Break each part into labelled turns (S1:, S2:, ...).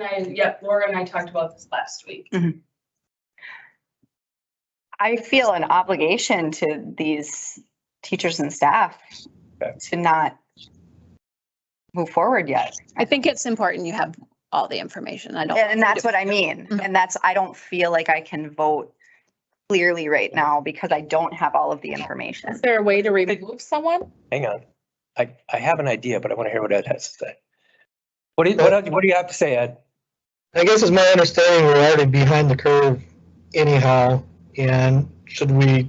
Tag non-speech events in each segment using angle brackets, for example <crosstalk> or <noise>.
S1: And yep, Laura and I talked about this last week.
S2: I feel an obligation to these teachers and staff
S3: Okay.
S2: to not move forward yet.
S4: I think it's important you have all the information. I don't.
S2: And that's what I mean.
S4: Mhm.
S2: And that's, I don't feel like I can vote clearly right now because I don't have all of the information.
S5: Is there a way to remove someone?
S3: Hang on. I, I have an idea, but I want to hear what Ed has to say. What do you, what, else- what do you have to say, Ed?
S6: I guess it's my understanding we're already behind the curve anyhow, and should we,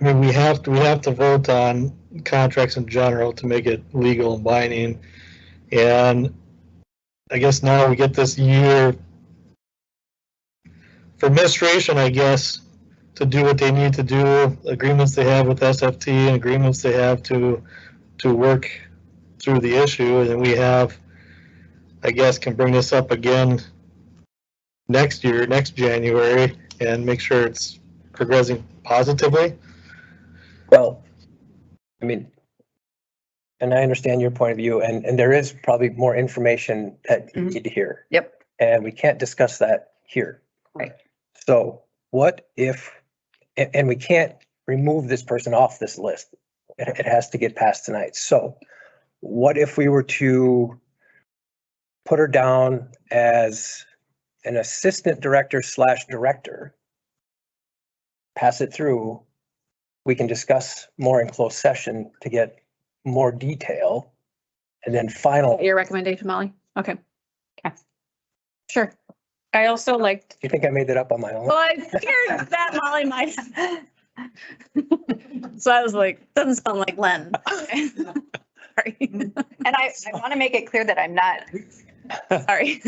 S6: I mean, we have, to we have to vote on contracts in general to make it legal and binding. And I guess now we get this year for administration, I guess, to do what they need to do, agreements they have with SFT and agreements they have to, to work through the issue, and then we have I guess, can bring this up again next year, next January, and make sure it's progressing positively.
S3: Well, I mean, and I understand your point of view and, and there is probably more information that you
S2: Mhm.
S3: need to hear.
S2: Yep.
S3: And we can't discuss that here.
S2: Right.
S3: So what if, and, and we can't remove this person off this list. It, it has to get passed tonight. So what if we were to put her down as an assistant director slash director? Pass it through. We can discuss more in closed session to get more detail. And then final,
S4: Your recommendation, Molly? Okay.
S2: Okay.
S4: Sure.
S5: I also liked,
S3: you think I made that up on my own?
S4: Well, I figured that Molly might. <laughs> So I was like, doesn't sound like Len. <laughs> Sorry.
S2: And I, I want to make it clear that I'm not,
S4: Sorry.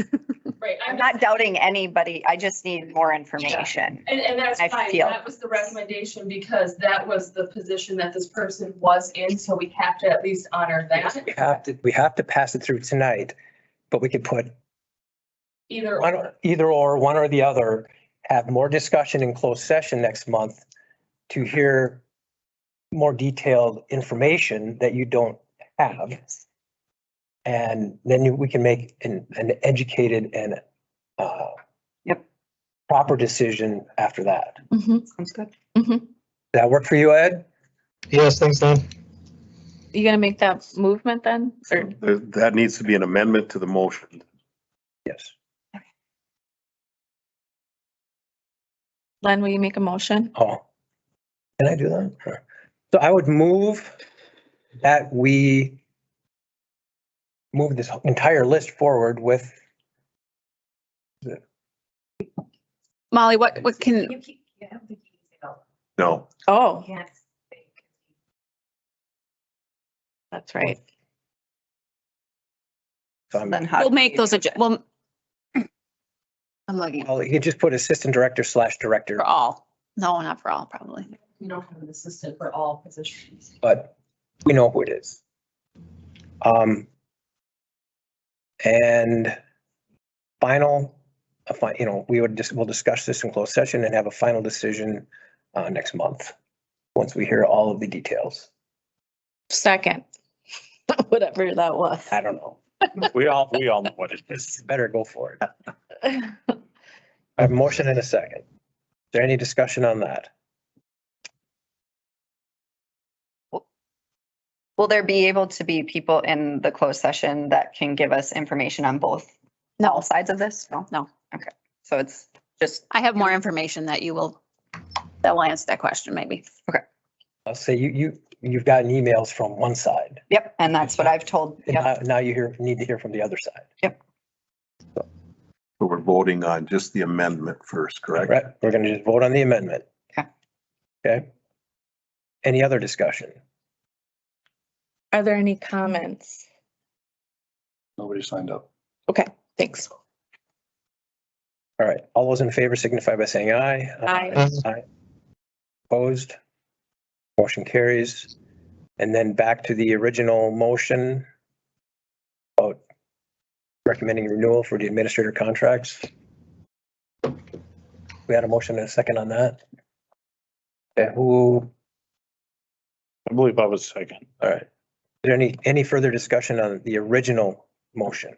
S1: Right,
S2: I'm
S1: I'm
S2: not doubting anybody. I just need more information.
S1: and, and that's
S2: I
S1: fine.
S2: feel-
S1: That was the recommendation because that was the position that this person was in, so we have to at least honor that.
S3: We have to, we have to pass it through tonight, but we could put
S1: Either,
S3: one, or- either or, one or the other, have more discussion in closed session next month to hear more detailed information that you don't have. And then you- we can make an, an educated and, uh,
S2: Yep.
S3: proper decision after that. Does
S5: Mm-hmm.
S2: Sounds good.
S3: that work for you, Ed?
S6: Yes, thanks, Don.
S5: you gonna make that movement then? Or
S7: There- That needs to be an amendment to the motion.
S3: Yes.
S5: Len, will you make a motion?
S3: Oh, can I do that? Sure. So I would move that we move this entire list forward with,
S4: Molly, what, what can,
S7: No,
S5: Oh. Yes. That's right.
S3: um,
S2: Then how?
S4: we'll make those, adju- well. <clears throat> I'm looking
S3: well, you could just put assistant director slash director,
S4: for all. No, not for all, probably.
S1: we don't have an assistant for all positions.
S3: but we know who it is. Um, and final, a fi- you know, we would just, we'll discuss this in closed session and have a final decision uh, next month, once we hear all of the details.
S5: Second. <laughs> Whatever that was.
S3: I don't know.
S7: we all, we all know what it is.
S3: Better go for it. I have a motion and a second. Is there any discussion on that?
S2: Will there be able to be people in the closed session that can give us information on both, all
S4: No,
S2: sides of this? No?
S4: No.
S2: Okay. So it's just,
S4: I have more information that you will, that will answer that question maybe.
S3: I'll say you, you, you've gotten emails from one side.
S2: yep. And that's what I've told.
S3: And
S2: yep.
S3: now, now you hear, need to hear from the other side.
S7: So we're voting on just the amendment first, correct?
S3: Right, we're gonna just vote on the amendment.
S2: Okay.
S3: Okay. Any other discussion?
S5: Are there any comments?
S7: Nobody signed up.
S5: Okay, thanks.
S3: All right, all those in favor signify by saying aye.
S5: Aye.
S3: Opposed? Motion carries. And then back to the original motion about recommending renewal for the administrator contracts. We had a motion and a second on that. Okay, who,
S8: I believe I was second.
S3: all right. Is there any, any further discussion on the original motion?